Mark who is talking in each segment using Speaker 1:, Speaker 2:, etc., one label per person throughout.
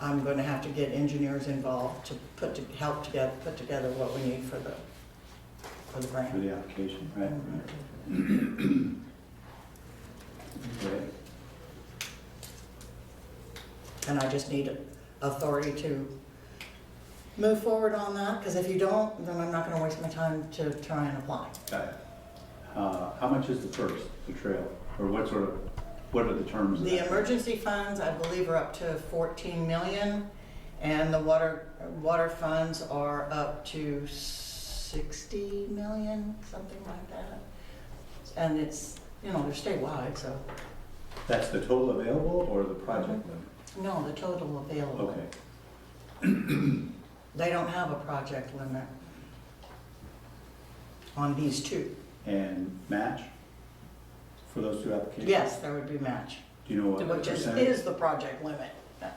Speaker 1: I'm gonna have to get engineers involved to put, to help to get, put together what we need for the, for the
Speaker 2: for
Speaker 1: grant.
Speaker 2: the application, right?
Speaker 1: Mm-hmm.
Speaker 2: Okay.
Speaker 1: And I just need authority to move forward on that, because if you don't, then I'm not gonna waste my time to try and apply.
Speaker 2: Got it. Uh, How much is the first, the trail? Or what sort of, what are the terms of
Speaker 1: The
Speaker 2: that?
Speaker 1: emergency funds, I believe, are up to 14 million, and the water, water funds are up to 60 million, something like that. And it's, you know, they're statewide, so,
Speaker 2: That's the total available or the project limit?
Speaker 1: no, the total available.
Speaker 2: Okay,
Speaker 1: They don't have a project limit on these two.
Speaker 2: and match for those two applications?
Speaker 1: Yes, there would be match,
Speaker 2: Do you know what the
Speaker 1: which is,
Speaker 2: percentage?
Speaker 1: is the project limit. I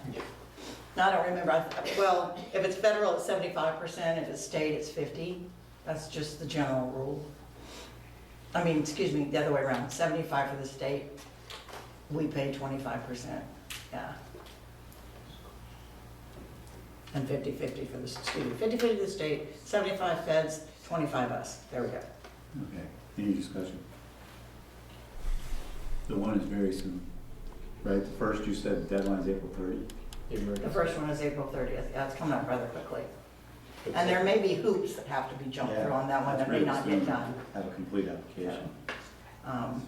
Speaker 1: don't remember, I th- well, if it's federal, it's 75%, if it's state, it's 50. That's just the general rule. I mean, excuse me, the other way around, 75 for the state, we pay 25%, yeah. And 50/50 for the, excuse me, 50/50 to the state, 75 feds, 25 us, there we go.
Speaker 2: Okay, any discussion? The one is very soon, right? The first you said deadline's April 30.
Speaker 1: The first one is April 30th, yeah, it's coming up rather quickly. And there may be hoops that have to be jumped through on that one that may
Speaker 2: That's
Speaker 1: not
Speaker 2: really
Speaker 1: get
Speaker 2: soon.
Speaker 1: done.
Speaker 2: Have a complete application.
Speaker 1: Um,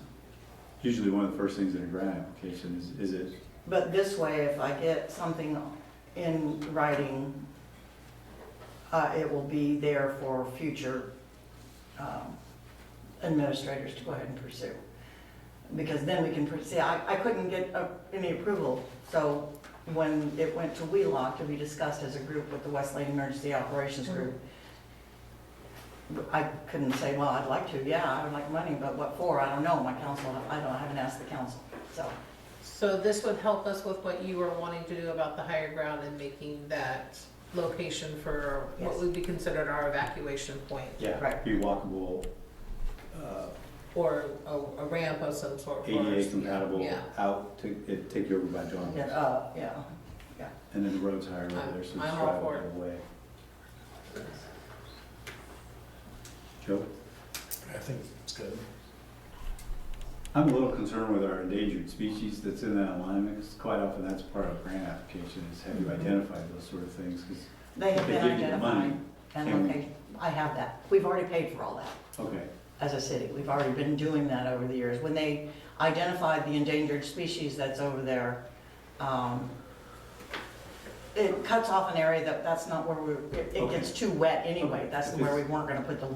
Speaker 2: Usually one of the first things in a grant application is, is it,
Speaker 1: But this way, if I get something in writing, uh, it will be there for future um, administrators to go ahead and pursue. Because then we can, pr- see, I, I couldn't get uh, any approval, so when it went to WheeLock to be discussed as a group with the Wesleyan Emergency Operations Group, I couldn't say, well, I'd like to, yeah, I would like money, but what for? I don't know, my council, I don't, I haven't asked the council, so.
Speaker 3: So this would help us with what you were wanting to do about the higher ground and making that location for what
Speaker 1: Yes.
Speaker 3: would be considered our evacuation point?
Speaker 2: yeah,
Speaker 1: Right.
Speaker 2: be walkable, uh,
Speaker 3: Or a a ramp of some sort. for us.
Speaker 2: ADA compatible,
Speaker 3: Yeah.
Speaker 2: out, to- it'd take you over by John.
Speaker 1: Yeah, uh, yeah, yeah.
Speaker 2: And then the road's higher over there, so it's
Speaker 3: I'm- I'm all for
Speaker 2: drivable
Speaker 3: it.
Speaker 2: away. Joe?
Speaker 4: I think it's good.
Speaker 2: I'm a little concerned with our endangered species that's in that alignment, because quite often that's part of grant application, is have
Speaker 3: Mm-hmm.
Speaker 2: you identified those sort of things? 'Cause-
Speaker 1: They have
Speaker 2: They
Speaker 1: been
Speaker 2: give you the money.
Speaker 1: identified and
Speaker 2: Can we-
Speaker 1: located. I have that. We've already paid for all that
Speaker 2: okay,
Speaker 1: as a city. We've already been doing that over the years. When they identified the endangered species that's over there, um, it cuts off an area that, that's not where we, it it gets too wet anyway.
Speaker 2: Okay.
Speaker 1: That's where we weren't gonna put the,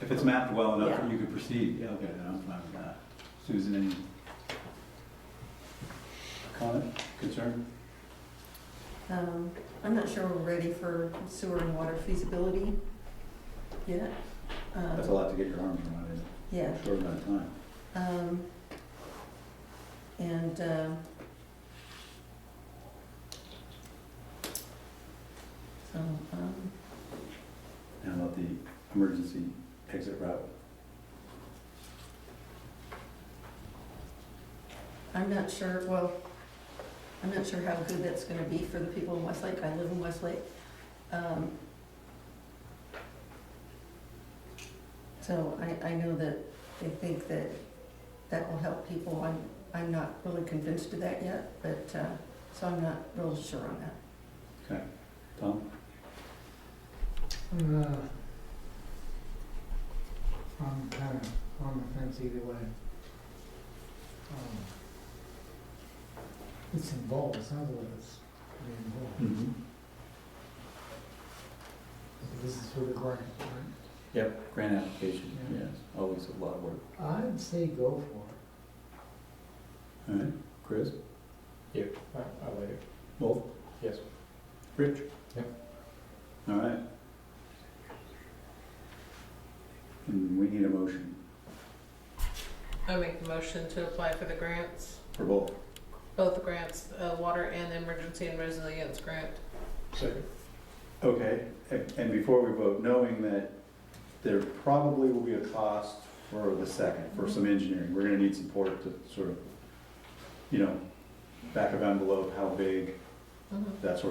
Speaker 2: if it's mapped well enough,
Speaker 1: Yeah.
Speaker 2: that you could proceed, yeah, okay, then I'm fine with that. Susan, any comment, concern?
Speaker 5: Um, I'm not sure we're ready for sewer and water feasibility yet. Um,
Speaker 2: That's a lot to get your arms around in
Speaker 5: Yeah,
Speaker 2: a short amount of time.
Speaker 5: um, and, um, so, um,
Speaker 2: Now about the emergency exit route.
Speaker 5: I'm not sure, well, I'm not sure how good that's gonna be for the people in Westlake. I live in Westlake. Um, So I, I know that they think that that will help people. I'm, I'm not really convinced of that yet, but, uh, so I'm not real sure on that.
Speaker 2: Okay, Tom?
Speaker 6: Uh, I'm kind of on the fence either way. Um, It's involved, it sounds like it's pretty involved.
Speaker 2: Mm-hmm.
Speaker 6: This is for the grant, right?
Speaker 2: Yep, grant application,
Speaker 6: Yeah.
Speaker 2: yes, always a lot of work.
Speaker 6: I'd say go for
Speaker 2: All
Speaker 6: it.
Speaker 2: right, Chris?
Speaker 4: Yeah, I, I like it.
Speaker 2: Both?
Speaker 4: Yes.
Speaker 2: Rich?
Speaker 4: Yep.
Speaker 2: All right. And we need a motion
Speaker 3: I make the motion to apply for the grants,
Speaker 2: for both.
Speaker 3: both the grants, uh, water and the emergency and resilience grant.
Speaker 4: Second.
Speaker 2: Okay, and and before we vote, knowing that there probably will be a cost for the second, for some engineering, we're gonna need support to sort of, you know, back of envelope, how big,
Speaker 3: Mhm.
Speaker 2: that sort of